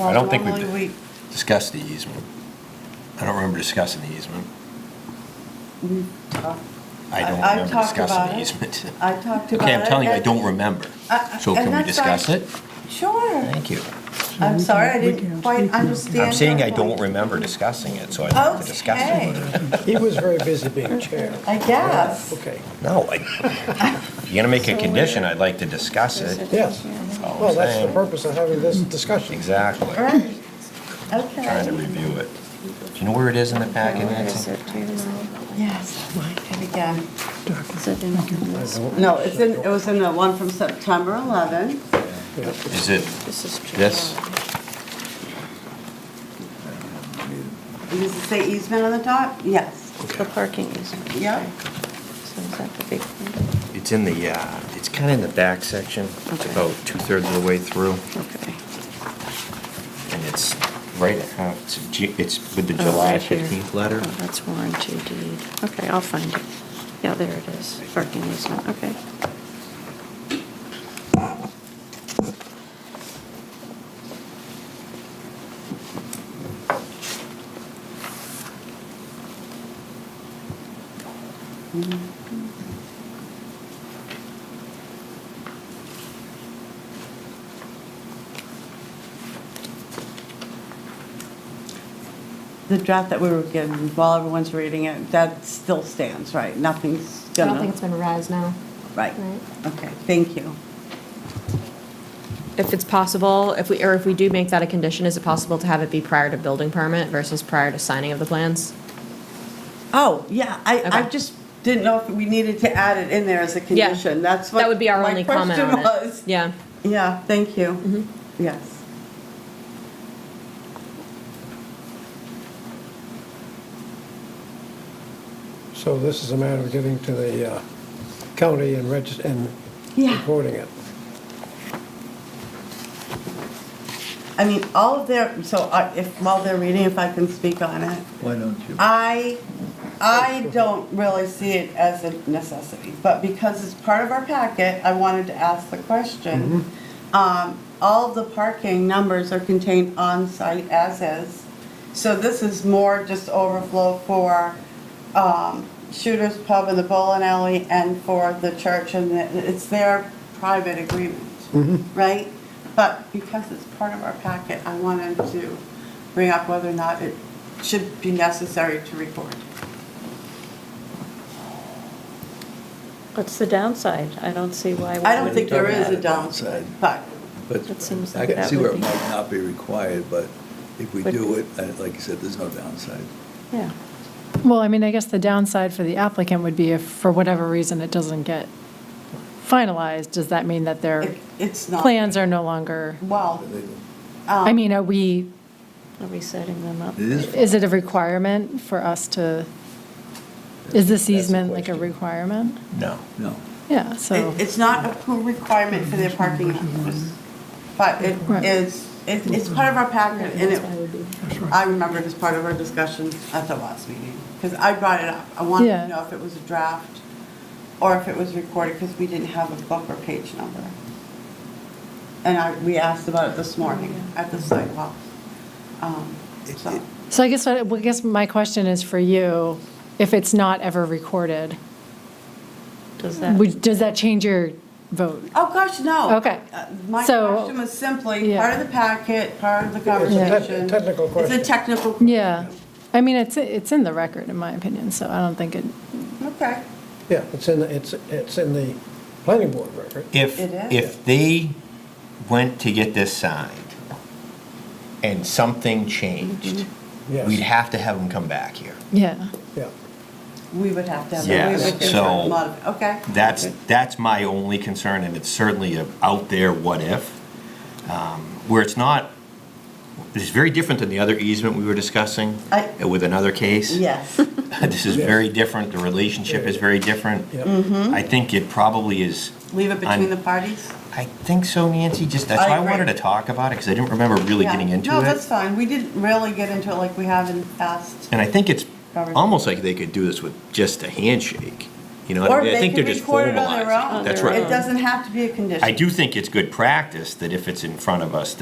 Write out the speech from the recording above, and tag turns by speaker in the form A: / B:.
A: I don't think
B: Walter Lumley,
A: we've discussed the easement. I don't remember discussing the easement.
B: we- we talked-
A: I don't
B: I've
A: remember
B: talked
A: discussing
B: about
A: the
B: it.
A: easement.
B: I talked about it.
A: Okay, I'm telling you, I
B: and-
A: don't remember.
B: I- I-
A: So
B: and
A: can we
B: that's fine.
A: discuss it?
B: Sure.
A: Thank you.
B: I'm
C: We
B: sorry, I
C: can- we
B: didn't
C: can
B: quite
C: speak now.
B: understand.
A: I'm saying
B: your
A: I don't
B: point.
A: remember discussing it, so I'd like to discuss it.
C: He was very busy being chair.
B: I guess.
C: Okay,
A: No, I, you're gonna make a condition, I'd like to discuss it.
C: yes.
A: That's all I'm
C: Well, that's the
A: saying.
C: purpose of having this discussion.
A: Exactly.
B: Right,
A: Trying to
B: okay.
A: review it. Do you know where it is in the packet, Nancy?
B: Yes, and again.
C: I don't-
B: No, it's in, it was in the one from September 11.
C: yeah.
A: Is it this?
B: And Does it say easement on the top? Yes.
D: The parking easement.
B: Yep.
D: So is that the big one?
A: It's in the, uh, it's kind of in the back section, It's
D: Okay.
A: about two-thirds of the way through,
D: Okay.
A: and it's right, uh, it's Ju- it's with the
D: Oh,
A: July
D: right here.
A: 15th letter.
D: Oh, that's warranty deed. Okay, I'll find it. Yeah, there it is, parking easement, okay.
B: The draft that we were given, while everyone's reading it, that still stands, right? Nothing's
E: I
B: gonna...
E: don't think it's been revised now.
B: Right,
E: right.
B: okay, thank you.
F: If it's possible, if we, or if we do make that a condition, is it possible to have it be prior to building permit versus prior to signing of the plans?
B: Oh, yeah, I, I
F: Okay.
B: just didn't know if we needed to add it in there as a
F: Yeah.
B: condition. That's what
F: That would be our
B: my
F: only comment
B: question
F: on it.
B: was.
F: Yeah. Mm-hmm.
B: Yeah, thank you. Yes.
C: So this is a matter of getting to the uh, county and regis, and
B: Yeah.
C: reporting it.
B: I mean, all of their, so I- if, while they're reading, if I can speak on it.
G: Why don't you?
B: I, I don't really see it as a necessity, but because it's part of our packet, I wanted to ask the question.
G: Mm-hmm.
B: Um, All the parking numbers are contained on-site as is, so this is more just overflow for um, Shooter's Pub and the Bowling Alley and for the church, and it- it's their private agreement, right? But because it's part of our packet, I wanted to bring up whether or not it should be necessary to record.
D: What's the downside? I don't see why. we
B: I don't
D: would-
B: think there is
G: Talking
B: a
G: about it
B: downside,
G: outside.
B: but,
G: But
D: It seems
G: I
D: like
G: can
D: that
G: see
D: would
G: where it
D: be-
G: might not be required, but if we
D: Would
G: do
D: be-
G: it, I- like you said, there's no downside.
D: Yeah.
H: Well, I mean, I guess the downside for the applicant would be if, for whatever reason, it doesn't get finalized, does that mean that their
B: it- it's not. Um,
H: plans are no longer?
B: Well,
H: I mean, oh, are we,
D: Are we setting them up?
G: It is,
H: is it a requirement for us to, is this easement like a requirement?
A: No.
G: no.
H: Yeah, so,
B: it- it's not a pool requirement for their parking numbers, but it
H: Right.
B: is, it's, it's part of our packet, and
D: That's why it would be-
B: it, I remember it as part of our discussion at the last meeting, because I brought it up. I wanted
H: Yeah.
B: to know if it was a draft or if it was recorded, because we didn't have a book or page number. And I, we asked about it this morning at the sidewalk. Um, so.
H: so I guess, I well, I guess my question is for you, if it's not ever recorded,
D: Does that?
H: would- does that change your vote?
B: Oh, gosh, no.
H: Okay.
B: Uh, My
H: So-
B: question was simply
H: Yeah.
B: part of the packet, part of the
C: It's a tec-
B: conversation.
C: technical question.
B: It's a technical.
H: Yeah, I mean, it's, it's in the record, in my opinion, so I don't think it,
B: Okay.
C: Yeah, it's in, the it's, it's in the planning board record.
A: If,
B: It is.
A: if they went to get this signed and something changed,
D: Mm-hmm.
C: Yes.
A: we'd have to have them come back here.
H: yeah.
C: Yeah.
B: We would have to have.
A: Yes,
B: we would have to
A: so-
B: have a mod- Okay.
A: That's, that's my only concern, and it's certainly a out there what if, um, where it's not, it's very different than the other easement we were discussing
B: I-
A: with another case.
B: Yes.
A: This is very different, the relationship is very different.
C: Yeah.
B: Mm-hmm.
A: I think it probably is,
B: Leave it
A: I'm-
B: between the parties.
A: I think so, Nancy, just, that's
B: I
A: why I
B: agree.
A: wanted to talk about it, because I didn't remember really
B: Yeah.
A: getting into
B: No, that's
A: it.
B: fine. We didn't really get into it like we have in the past.
A: And I think it's
B: Robert.
A: almost like they could do this with just a handshake, you know,
B: Or
A: I mean, I
B: they
A: think they're
B: could
A: just
B: record it on their
A: formalizing.
B: own.
A: That's
D: their
A: right.
B: It doesn't have to be a condition.
A: I do think it's good practice that if it's in front of us,